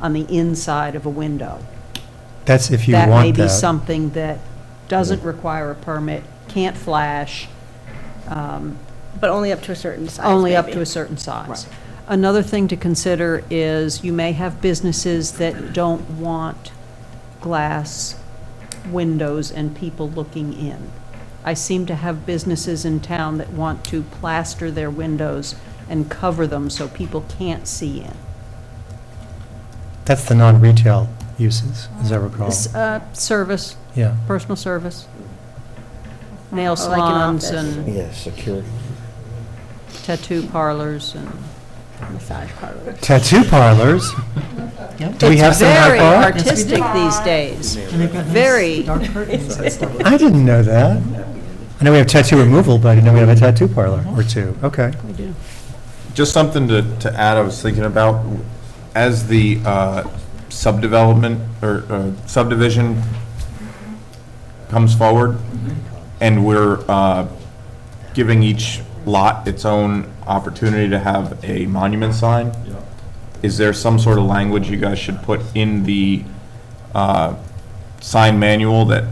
on the inside of a window. That's if you That may want be that. something that doesn't require a permit, can't flash, um, But only up to a certain size, only up maybe. to a certain size. Right. Another thing to consider is you may have businesses that don't want glass windows and people looking in. I seem to have businesses in town that want to plaster their windows and cover them so people can't see in. That's the non-retail uses, as I recall. S- uh, Service, Yeah. personal service, nail Or Oh, like an salons office. and Yeah, security. tattoo parlors and. Massage parlor. Tattoo parlors? Do we have some Very high bar? artistic these days. Very. I didn't know that. I know we have tattoo removal, but I didn't know we have a tattoo parlor or two. Okay. Just something to, to add, I was thinking about, as the uh, subdevelopment or uh, subdivision comes forward, Mm-hmm. and we're uh, giving each lot its own opportunity to have a monument sign, is there some sort of language you guys should put in the uh, sign manual that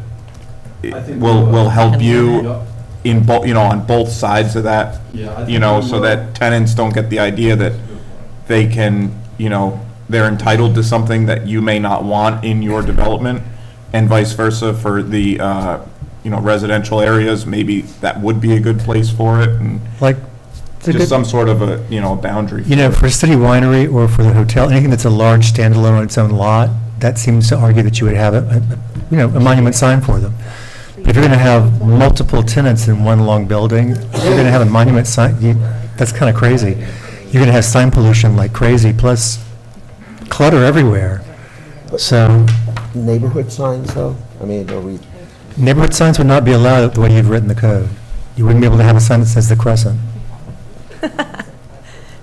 it I think will, we will. will help Yep. you in both, you know, on both sides of that? Yeah, I You think know, we so will. that tenants don't get the idea that they can, you know, they're entitled to something that you may not want in your development, and vice versa for the, uh, you know, residential areas, maybe that would be a good place for it, and Like, it's a just good- some sort of a, you know, a boundary. you know, for a city winery or for the hotel, anything that's a large standalone on its own lot, that seems to argue that you would have, a, a- you know, a monument sign for them. But If you're going to have multiple tenants in one long building, if you're going to have a monument sign, you- that's kind of crazy. You're going to have sign pollution like crazy, plus clutter everywhere. So Neighborhood signs, though? I mean, are we, neighborhood signs would not be allowed the way you've written the code. You wouldn't be able to have a sign that says the Crescent.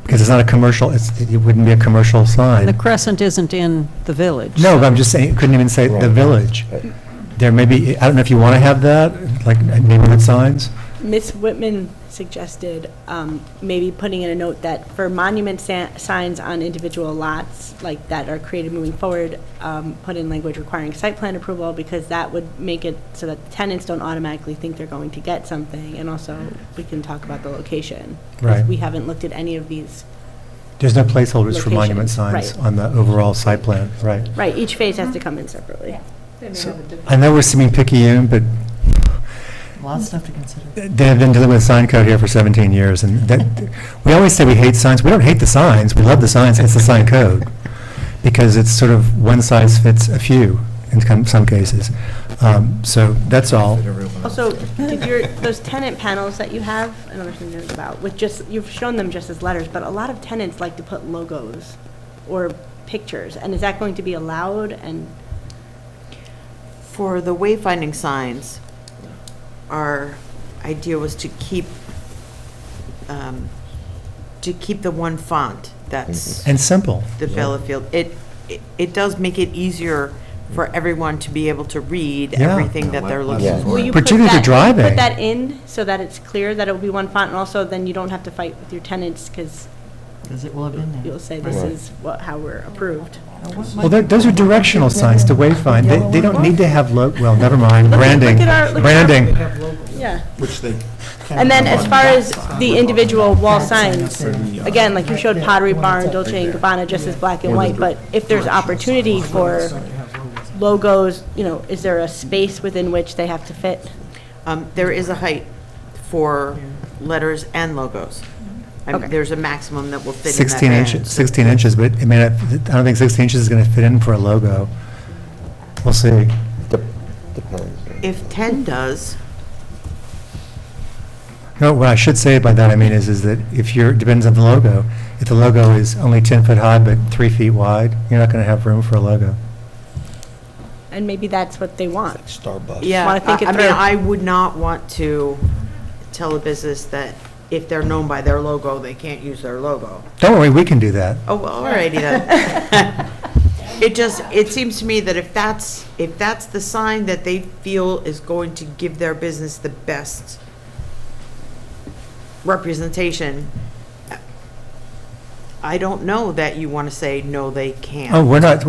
Because it's not a commercial, it's, it wouldn't be a commercial sign. The Crescent isn't in the village. No, but I'm just saying, couldn't even say the Right. village. Right. There may be, I don't know if you want to have that, like neighborhood signs? Ms. Whitman suggested um, maybe putting in a note that for monument sa- signs on individual lots, like that are created moving forward, um, put in language requiring site plan approval, because that would make it so that tenants don't automatically think they're going to get something, and also, we can talk about the location. 'cause Right. We haven't looked at any of these. There's no placeholders for monument Locations, signs right. on the overall site plan, right? Right, each phase has to come in separately. I know we're seeming picayune, but Lots of stuff to consider. they've been dealing with sign code here for 17 years, and that, we always say we hate signs, we don't hate the signs, we love the signs, it's the sign code, because it's sort of one size fits a few in com- some cases. Um, So that's all. Also, did your, those tenant panels that you have, I don't know if you know about, with just, you've shown them just as letters, but a lot of tenants like to put logos or pictures, and is that going to be allowed? And For the wayfinding signs, our idea was to keep, um, to keep the one font that's And simple. the Bellafield. It, it- it does make it easier for everyone to be able to read Yeah. everything that they're looking Yeah. for. will you put Particularly if that, you're driving. put that in so that it's clear that it'll be one font, and also then you don't have to fight with your tenants, because Because it will have been you'll say this Right. is what, how we're approved. Well, they're- those are directional signs to wayfind. They, they don't need to have, lo- well, never mind, Look at- branding, look at our- look at our- branding. Yeah. which they, And then as far as the individual wall signs, uh, again, like you showed Pottery Barn, Dolce and Gabbana, just as black and white, but if there's opportunity for logos, you know, is there a space within which they have to fit? Um, There is a height for letters and logos. I mean, Okay. There's a maximum that will fit in that 16 band. inches, 16 inches, but I mean, I don't think 16 inches is going to fit in for a logo. We'll see. dep- depends. yeah. If 10 does, No, what I should say by that, I mean, is, is that if you're, depends on the logo. If the logo is only 10 foot high but three feet wide, you're not going to have room for a logo. And maybe that's what they want. Starbucks. yeah, Wanna think I it I mean, through. I would not want to tell a business that if they're known by their logo, they can't use their logo. Don't worry, we can do that. Oh, well, alrighty then. It just, it seems to me that if that's, if that's the sign that they feel is going to give their business the best representation, I don't know that you want to say, no, they can't. Oh, we're not,